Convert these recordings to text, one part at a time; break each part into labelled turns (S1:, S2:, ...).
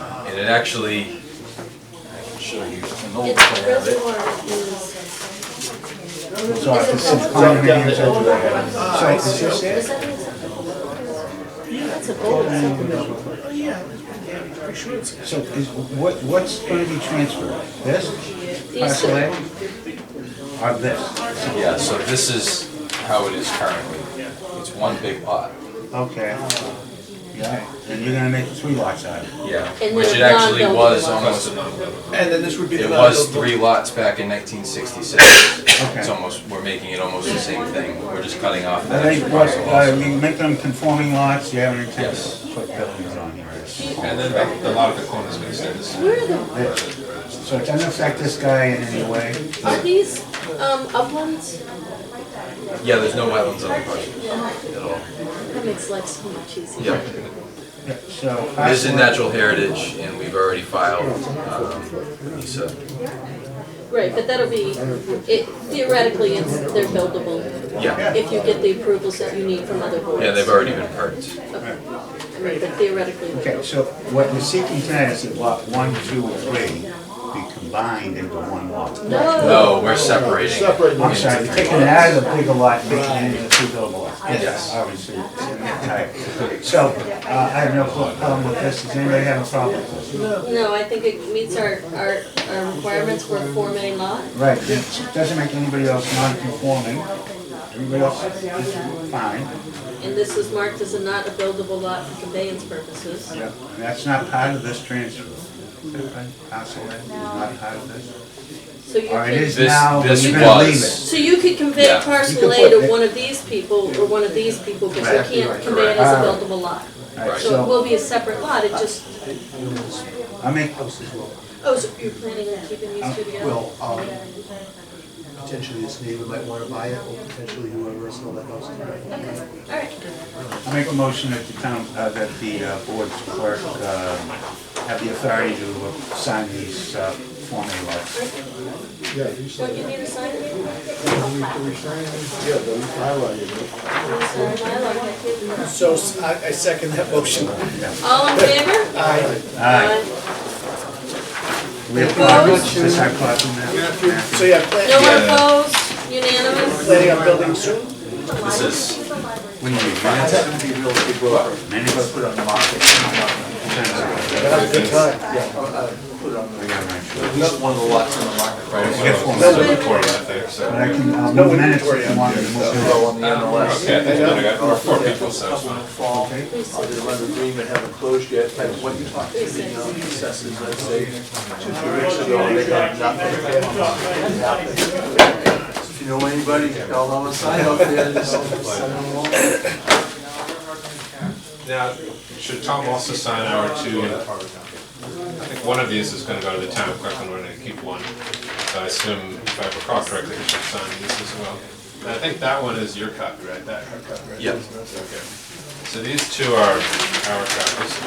S1: And it actually, I can show you an old
S2: It's the
S1: plan of it.
S2: reservoir is.
S3: So I can sit down here and go to that. So is this it?
S2: Is that mean something? That's a gold supplement.
S3: So is, what, what's gonna be transferred? This? Parcel A? Or this?
S1: Yeah, so this is how it is currently. It's one big lot.
S3: Okay. Yeah, and you're gonna make three lots out of it.
S1: Yeah.
S2: And
S1: Which it
S2: they're
S1: actually
S2: non-buildable
S1: was
S2: lots.
S1: almost,
S4: And then this would be the.
S1: it was
S4: non-buildable.
S1: three lots back in nineteen sixty-six.
S3: Okay.
S1: It's almost, we're making it almost the same thing. We're just cutting off the
S3: I think,
S1: extra
S3: what,
S1: parcel
S3: uh,
S1: also.
S3: you make them conforming lots, you have an intent
S1: Yes.
S3: to put buildings on here.
S4: And then the, the lot of the corner is gonna stay the same.
S2: Where are the,
S3: So it doesn't affect this guy in any way.
S2: are these, um, uplands?
S1: Yeah, there's no wetlands on the parcel at all.
S2: That makes life so much easier.
S1: Yeah.
S3: Yeah, So.
S1: It is in
S3: parcel A-
S1: natural heritage and we've already filed, um, with NISA.
S2: Right, but that'll be, it theoretically, it's, they're buildable.
S1: Yeah.
S2: If you get the approvals that you need from other boards.
S1: Yeah, they've already been perked.
S2: Okay. I mean, but theoretically,
S3: Okay, so what we're seeking tonight is that lot one, two, and three be combined into one lot.
S2: no,
S1: No, we're separating.
S4: Separating.
S3: I'm sorry, you're taking it out of the bigger lot, making it into two buildable lots.
S1: Yes.
S3: Obviously, it's in that type. So, uh, I have no problem with this, does anybody have a problem with this?
S2: no, I think it meets our, our, our requirements for a four main lot.
S3: Right, it doesn't make anybody else non-conforming, everybody else is fine.
S2: And this is marked as a not a buildable lot for conveyance purposes.
S3: Yep, and that's not part of this transfer. Is that right? Parcel A is not part of this?
S2: So you
S3: Or Uh, it is
S2: could,
S1: This-
S3: now, but
S1: this
S3: you're gonna leave
S1: was-
S3: it.
S2: so you could convey
S1: Yeah.
S2: parcel
S3: You
S2: A
S3: could put
S2: to
S3: it-
S2: one of these people or one of these people, because
S3: Right.
S2: you can't convey it as a
S3: Correct.
S2: buildable lot.
S3: Alright,
S2: So it
S3: so,
S2: will be a separate lot, it just,
S3: I make,
S2: oh, so you're planning on keeping these two together?
S5: Well, um, potentially this neighbor might want to buy it, or potentially whoever sold that house.
S2: Okay, all right.
S3: I make a motion that the town, uh, that the uh, board's clerk, uh, have the authority to sign these, uh, Form A lots.
S5: Yeah, you said,
S2: Don't you need a sign it?
S5: we sign it? Yeah, but we highlighted it.
S4: So s- I, I second that motion.
S2: All in favor?
S4: Aye.
S3: Aye. We have
S2: Opposed?
S3: clock, is our clock in there?
S4: So yeah, plan-
S2: No one opposed, unanimous?
S4: planning on building soon?
S1: This is,
S3: When you find it,
S5: That'd be real big blow.
S3: many of us put
S5: Put it on the market.
S4: Good time.
S5: Yeah, uh, uh, put it on the,
S3: it on my show.
S5: at least one of the lots on the market.
S6: Right,
S5: right?
S6: so it's
S3: form.
S6: still recorded, I think, so.
S3: But I can, I'll
S4: No
S3: move minutes
S4: inventory
S3: if you want me to move it.
S5: Blow on the MLS.
S6: Okay, I think I got four- four people, so it's
S5: Couple
S6: fine.
S5: in the fall, I did run the agreement, haven't closed yet, and what you talked to the um, assessors, I'd say, two, three weeks ago, they had nothing. If you know anybody, tell them to sign up there, just send them along.
S6: Now, should Tom also sign our two? I think one of these is gonna go to the town clerk and we're gonna keep one. So I assume, if I recall correctly, we should sign these as well. And I think that one is your copy, right? That, her copy, right?
S1: Yep.
S6: Okay. So these two are our copies.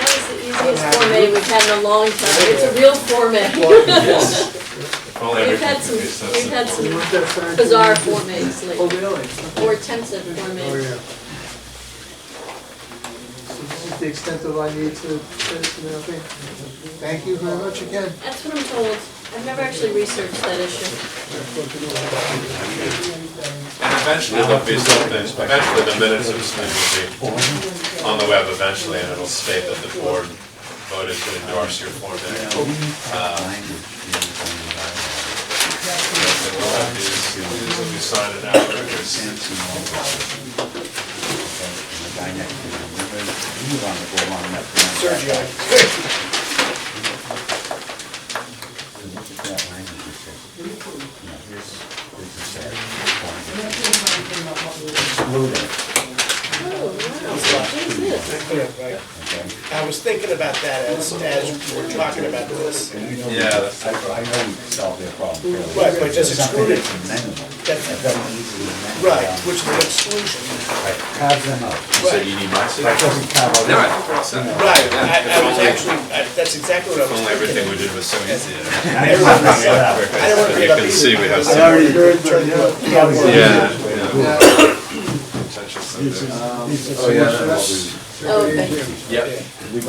S2: That was the easiest Form A we've had in a long time, it's a real Form A.
S1: yes, if only
S2: We've
S6: everything
S2: had
S6: could
S2: some,
S6: be so
S2: we've had
S6: simple.
S2: some
S5: They're signed.
S2: bizarre Form As
S5: Oh,
S2: lately,
S5: really?
S2: or attempts at Form As.
S5: So this is the extent of I need to, finish and everything. Thank you very much again.
S2: That's what I'm told, I've never actually researched that issue.
S6: And eventually there'll be something, eventually the minutes of this meeting will be on the web eventually and it'll state that the board voted to endorse your Form A. We'll have these, these will be signed and out, there's
S3: Sergio.
S2: Oh, wow, what's this?
S4: I was thinking about that as, as we we're talking about this.
S1: Yeah, that's-
S3: I, I know we solved their problem. fairly
S4: Right, but just
S3: Something
S4: exclude it.
S3: that's amenable,
S4: That's-
S3: that's easily amenable.
S4: Right, which is an exclusion.
S3: Right, Carve them up.
S1: so you need my
S3: That
S1: signature?
S3: doesn't carve out.
S1: No, I-
S4: Right, I, I was actually, I- that's exactly what I
S6: only
S4: was
S6: everything we
S4: thinking.
S6: did was so easy.
S3: I didn't want to mess it up.
S6: So you can see we have
S3: I
S6: some,
S3: already heard, but
S6: yeah,
S3: yeah.
S6: yeah, potential subjects.
S5: Oh,
S3: Oh, yeah.
S2: Oh, okay.
S1: Yep.